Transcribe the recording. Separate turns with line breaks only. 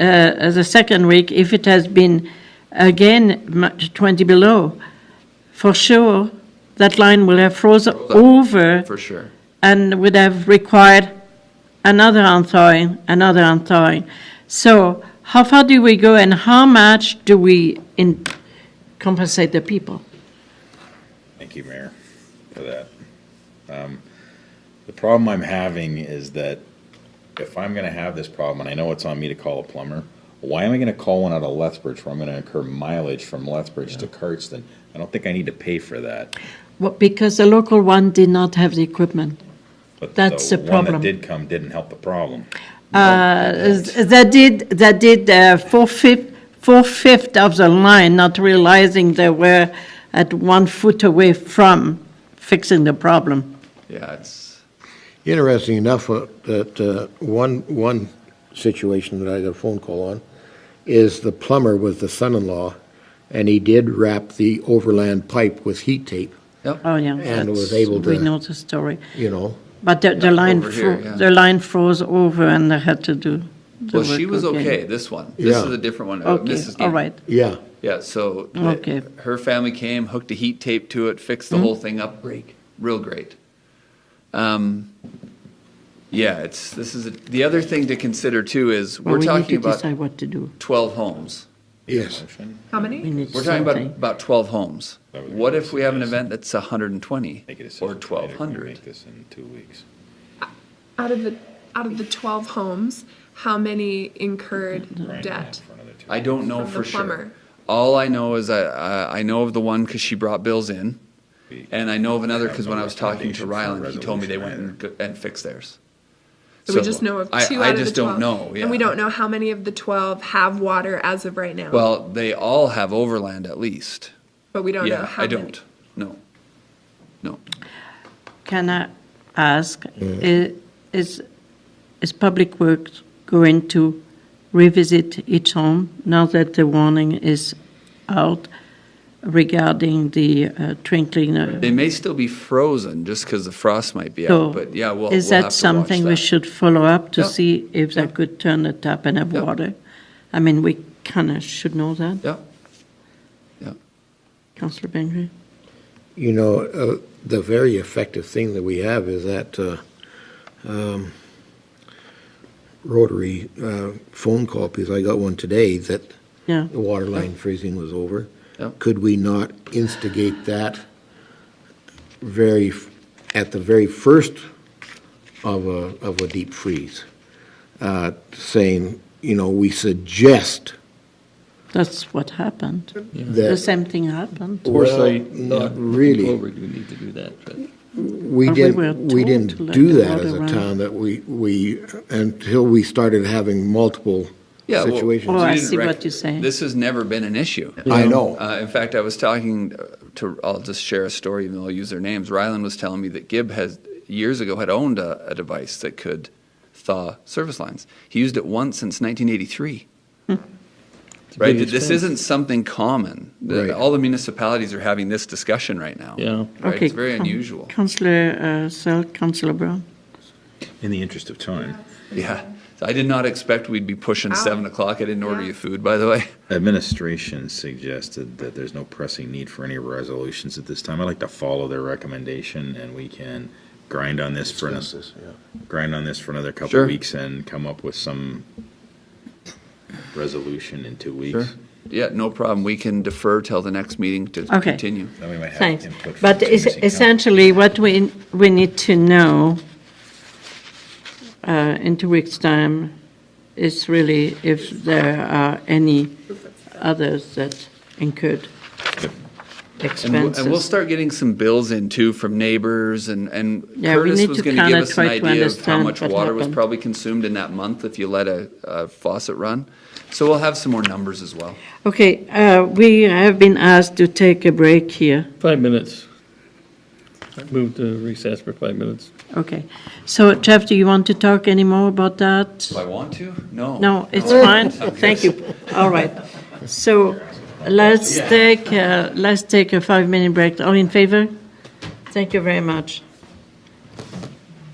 uh, the second week, if it has been again much 20 below, for sure, that line will have frozen over
for sure.
and would have required another unthawing, another unthawing. So how far do we go and how much do we in compensate the people?
Thank you, Mayor, for that. Um, The problem I'm having is that if I'm gonna have this problem, and I know it's on me to call a plumber, why am I gonna call one out of Lethbridge where I'm gonna incur mileage from Lethbridge to Cardston? I don't think I need to pay for that.
Well, because the local one did not have the equipment.
But
That's the
one
problem.
that did come didn't help the problem.
Uh, That did, that did uh, four-fifth, four-fifth of the line, not realizing they were at one foot away from fixing the problem.
Yeah, it's,
Interesting enough, uh, that uh, one, one situation that I got a phone call on is the plumber was the son-in-law, and he did wrap the overland pipe with heat tape,
yep.
Oh, yeah.
and was
That's-
able
We know
to,
the story.
you know,
But the, the line,
over here,
fro-
yeah.
the line froze over and they had to do the
Well, she
work
was
again.
okay, this one. This
Yeah.
is a different one. uh,
Okay,
Mrs.
all
Gaines.
right.
yeah.
Yeah, so the-
Okay. Mm-hmm.
her family came, hooked a heat tape to it, fixed the whole thing up. Great. Real great. Um, yeah, it's, this is, a- the other thing to consider too is,
Well,
we're
we need
talking
to
about
decide what to do.
twelve homes.
Yes.
How
We
many?
need
We're talking about,
something.
about twelve homes.
That would be
What
my
if we have an
suggestion.
event that's hundred and twenty
Make a decision
or
tonight if we
twelve hundred?
Make this in two weeks.
Out of the, out of the 12 homes, how many incurred
Brian,
debt?
for another two
I don't know
From the
for sure.
plumber.
All I know is I, I, I know of the one because she brought bills in.
weeks.
And I know of another
have
because
no
when I was talking to
recommendation for a
Ryland, he told me they went
resolution
and, go- and fixed theirs.
So we just know of
I-
two
I
out of the
just don't
12.
know, yeah.
And we don't know how many of the 12 have water as of right now.
Well, they all have overland at least.
But we don't know
Yeah,
how
I
many.
don't. No. No.
Can I ask, i- is, is Public Works going to revisit each home now that the warning is out regarding the uh, train cleaner?
They may still be frozen just because the frost might be
So
out, but yeah, we'll,
Is
we'll
that
have to watch
something we
that.
should follow up to
Yeah.
see if they
Yeah.
could turn the tap and have
Yeah.
water? I mean, we kind of should know that,
Yeah. Yeah.
Councillor Bengry.
You know, uh, the very effective thing that we have is that uh, um, rotary uh, phone call, because I got one today that
Yeah.
the water line freezing was over.
Yep.
Could we not instigate that very, f- at the very first of a, of a deep freeze? uh, Saying, you know, we suggest
That's what happened. The
that,
same thing happened.
well, not really.
Forward, we need to do that, but
We
Or we were
didn't, we
told to
didn't
let
do
the
that as
water
a
run.
town, that we, we, until we started having multiple
Yeah, well,
situations.
Oh, I
we didn't
see what
rec-
you're saying.
This has never been an issue.
I know.
Uh, in fact, I was talking uh, to, I'll just share a story, even though I'll use their names. Ryland was telling me that Gibb has, years ago, had owned a, a device that could thaw service lines. He used it once since 1983.
Hmm.
it's a
Right?
big
This
expense.
isn't something common. The-
Right.
All the municipalities are having this discussion right now.
Yeah.
Right?
Okay,
It's very
Coun-
unusual.
Councillor uh, Searle, Councillor Brown.
In the interest of time,
Yeah. So I did not expect we'd be pushing
Wow.
7 o'clock. I didn't order
Yeah.
you food, by the way.
administration suggested that there's no pressing need for any resolutions at this time. I'd like to follow their recommendation and we can grind on this for, an- grind on this for another couple
Sure.
of weeks and come up with some resolution in two weeks.
Yeah, no problem. We can defer till the next meeting to
Okay.
continue.
Then we might have
Thanks.
input from
But
the
es-
missing council.
essentially, what we, we need to know uh, in two weeks' time is really if there are any others that incurred
And we'll, and we'll
expenses.
start getting some bills in too from neighbors and, and
Yeah, we
Curtis
need
was
to
gonna give
kinda
us an
try to
idea of how
understand
much
what
water was
happened.
probably consumed in that month if you let a, a faucet run. So we'll have some more numbers as well.
Okay, uh, we have been asked to take a break here.
Five minutes. Move to recess for five minutes.
Okay. So Jeff, do you want to talk any more about that?
Do I want to? No. Oh.
No, it's fine, thank you. All right. So let's take, uh, let's take a five-minute break. All in favor? Thank you very much.